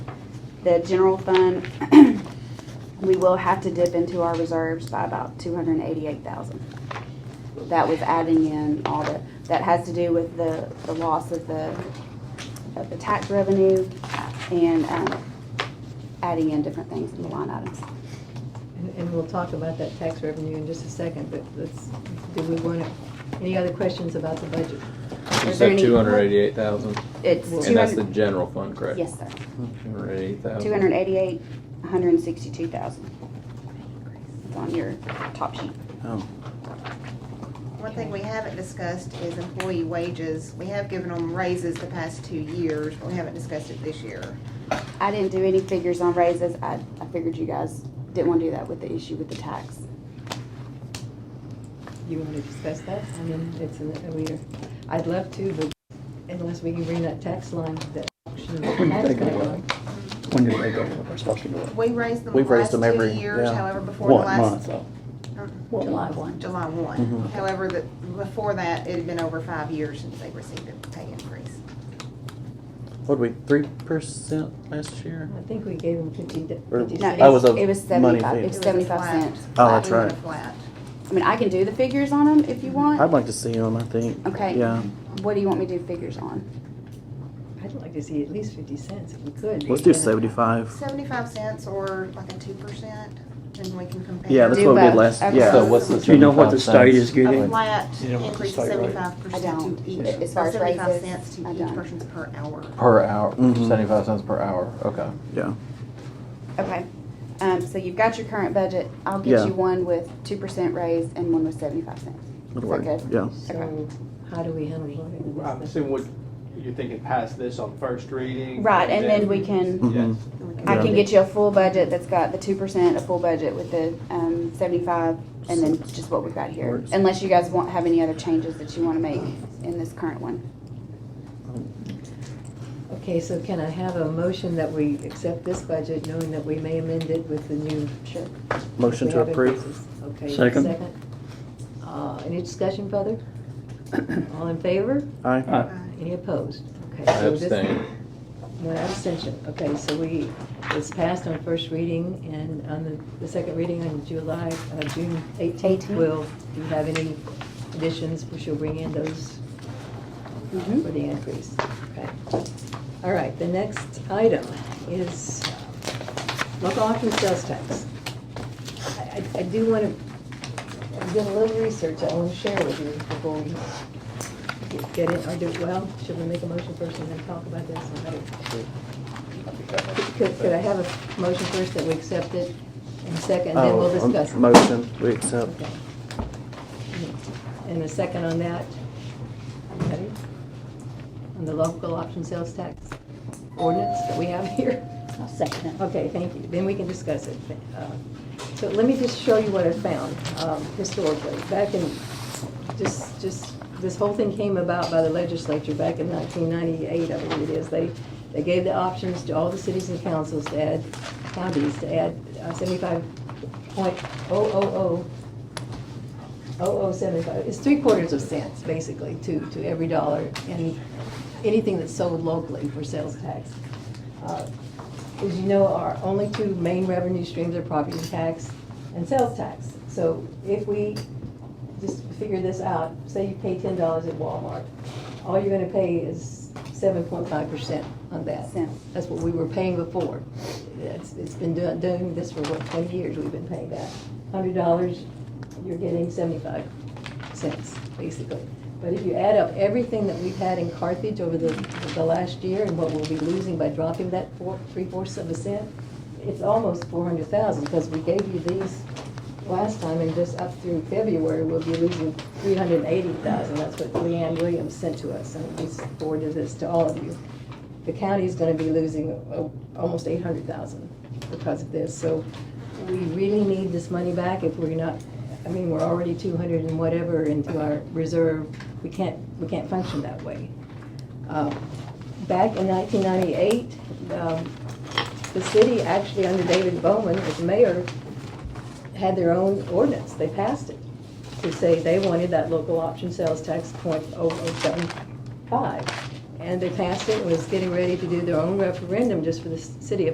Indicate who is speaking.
Speaker 1: The general fund, we will have to dip into our reserves by about two hundred and eighty-eight thousand. That was adding in all the, that has to do with the, the loss of the, of the tax revenue and, um, adding in different things in the line items.
Speaker 2: And, and we'll talk about that tax revenue in just a second, but let's, do we want to, any other questions about the budget?
Speaker 1: Is
Speaker 3: You
Speaker 1: there
Speaker 3: said
Speaker 1: any-
Speaker 3: two hundred eighty-eight thousand,
Speaker 1: It's
Speaker 3: and
Speaker 1: two
Speaker 3: that's the Oh.
Speaker 1: hundred,
Speaker 3: general fund, correct?
Speaker 1: yes, sir.
Speaker 3: Two hundred eighty-eight thousand.
Speaker 1: Two hundred eighty-eight, hundred and sixty-two thousand. It's on your top sheet.
Speaker 4: Oh,
Speaker 5: One thing we haven't discussed is employee wages. We have given them raises the past two years, but we haven't discussed it this year.
Speaker 1: I didn't do any figures on raises. I, I figured you guys didn't want to do that with the issue with the tax.
Speaker 2: You want to discuss that? I mean, it's, an- I mean, I'd love to, but unless we can bring that tax line, that auction tax
Speaker 4: Take it
Speaker 2: line.
Speaker 4: away. when did they go up? We're supposed to go up.
Speaker 5: We raised them the
Speaker 4: We've
Speaker 5: last
Speaker 4: raised them
Speaker 5: two
Speaker 4: every,
Speaker 5: years,
Speaker 4: yeah.
Speaker 5: however, before the
Speaker 4: One
Speaker 5: last.
Speaker 4: month, though.
Speaker 5: uh,
Speaker 4: One
Speaker 2: July
Speaker 4: month.
Speaker 2: one.
Speaker 5: July one.
Speaker 4: Mhm.
Speaker 5: However, the, before that, it had been over five years since they received a pay increase.
Speaker 4: What'd we, three percent last year?
Speaker 2: I think we gave them fifty, d-
Speaker 4: Or-
Speaker 2: fifty
Speaker 1: No,
Speaker 2: cents.
Speaker 4: I was
Speaker 1: it
Speaker 4: a
Speaker 1: it was
Speaker 4: money
Speaker 1: seventy-five,
Speaker 4: thing.
Speaker 1: it
Speaker 5: It
Speaker 1: was
Speaker 5: was a
Speaker 1: seventy-five
Speaker 5: flat-
Speaker 1: cents.
Speaker 4: Oh, that's
Speaker 5: flat-
Speaker 4: right.
Speaker 5: Flat.
Speaker 1: I mean, I can do the figures on them if you
Speaker 4: I'd
Speaker 1: want.
Speaker 4: like to see them, I think.
Speaker 1: Okay.
Speaker 4: Yeah,
Speaker 1: What do you want me to do figures on?
Speaker 2: I'd like to see at least fifty cents if we could.
Speaker 4: let's do seventy-five.
Speaker 5: Seventy-five cents or like a two percent, and we can compare.
Speaker 4: Yeah, that's what we
Speaker 1: both.
Speaker 4: did last,
Speaker 1: Okay.
Speaker 4: yeah.
Speaker 3: So what's the
Speaker 4: Do you know what the
Speaker 3: 75
Speaker 4: state is
Speaker 3: cents?
Speaker 5: A
Speaker 4: getting?
Speaker 5: flat
Speaker 4: You don't want to
Speaker 5: increase of
Speaker 4: say right.
Speaker 5: seventy-five
Speaker 1: I
Speaker 5: percent
Speaker 1: don't.
Speaker 5: to each.
Speaker 1: As far as
Speaker 5: Seventy-five
Speaker 1: raises,
Speaker 5: cents to
Speaker 1: I
Speaker 5: each
Speaker 1: don't.
Speaker 5: person per hour.
Speaker 3: Per hour,
Speaker 4: Mhm.
Speaker 3: seventy-five cents per hour, okay.
Speaker 4: Yeah,
Speaker 1: Okay, um, so you've got your current budget. I'll get
Speaker 4: Yeah.
Speaker 1: you one with two percent raise and one with seventy-five cents. Is
Speaker 4: it'll
Speaker 1: that
Speaker 4: work,
Speaker 1: good?
Speaker 4: yeah.
Speaker 2: So how do we handle it?
Speaker 6: I'm assuming what, you're thinking pass this on first reading?
Speaker 1: Right, and then we can,
Speaker 4: Mhm.
Speaker 6: Yes.
Speaker 5: And we can
Speaker 1: I can
Speaker 4: Yeah.
Speaker 1: get you a full budget that's got the two percent, a full budget with the, um, seventy-five, and then just what we've got here.
Speaker 4: Works.
Speaker 1: Unless you guys won't have any other changes that you wanna make in this current one.
Speaker 2: Okay, so can I have a motion that we accept this budget, knowing that we may amend it with the new?
Speaker 1: Sure.
Speaker 4: Motion
Speaker 2: We
Speaker 4: to
Speaker 2: have
Speaker 4: approve.
Speaker 2: increases. Okay.
Speaker 4: Second.
Speaker 2: Uh, Any discussion further? All in favor?
Speaker 4: Aye.
Speaker 5: Uh,
Speaker 2: Any opposed? Okay.
Speaker 3: I
Speaker 2: so this-
Speaker 3: abstain.
Speaker 2: One abstention. Okay, so we, it's passed on first reading and on the, the second reading on July, uh, June 18th.
Speaker 1: Eighteenth.
Speaker 2: Will, do you have any additions? We shall bring in those
Speaker 1: Mhm.
Speaker 2: for the increase. Okay. All right, the next item is local option sales tax. I, I- I do want to, I've done a little research I want to share with you before we get- get in, or do, well, should we make a motion first and then talk about this? Or how do- Could, could I have a motion first that we accept it, and second, and then we'll
Speaker 4: Oh, um,
Speaker 2: discuss it?
Speaker 4: Motion, we accept.
Speaker 2: Okay. And a second on that? Ready? On the local option sales tax ordinance that we have here?
Speaker 7: I'll second it.
Speaker 2: Okay, thank you. Then we can discuss it. Uh, So let me just show you what I found um, historically. Back in, just, just, this whole thing came about by the legislature back in 1998, I believe it is. They, they gave the options to all the cities and councils to add, counties to add uh, 75.000 0075, Oh, it's three quarters of cents, basically, to, to every dollar, and anything that's sold locally for sales tax. Uh, As you know, our only two main revenue streams are property tax and sales tax. So if we just figure this out, say you pay ten dollars at Walmart, all you're gonna pay is seven point five percent on that.
Speaker 1: Cents.
Speaker 2: That's what we were paying before. It's, it's been doing, doing this for what, twenty years we've been paying that. Hundred dollars, you're getting seventy-five cents, basically. But if you add up everything that we've had in Carthage over the, the last year and what we'll be losing by dropping that four, three fourths of a cent, it's almost four hundred thousand, because we gave you these last time, and just up through February, we'll be losing three hundred and eighty thousand, that's what Leanne Williams sent to us, and we forwarded this to all of you. The county's gonna be losing uh, almost eight hundred thousand because of this, so we really need this money back if we're not, I mean, we're already two hundred and whatever into our reserve, we can't, we can't function that way. Uh, Back in nineteen ninety-eight, um, the city actually, under David Bowman as mayor, had their own ordinance, they passed it, to say they wanted that local option sales tax point oh oh seven five. And they passed it, and was getting ready to do their own referendum just for the s- city of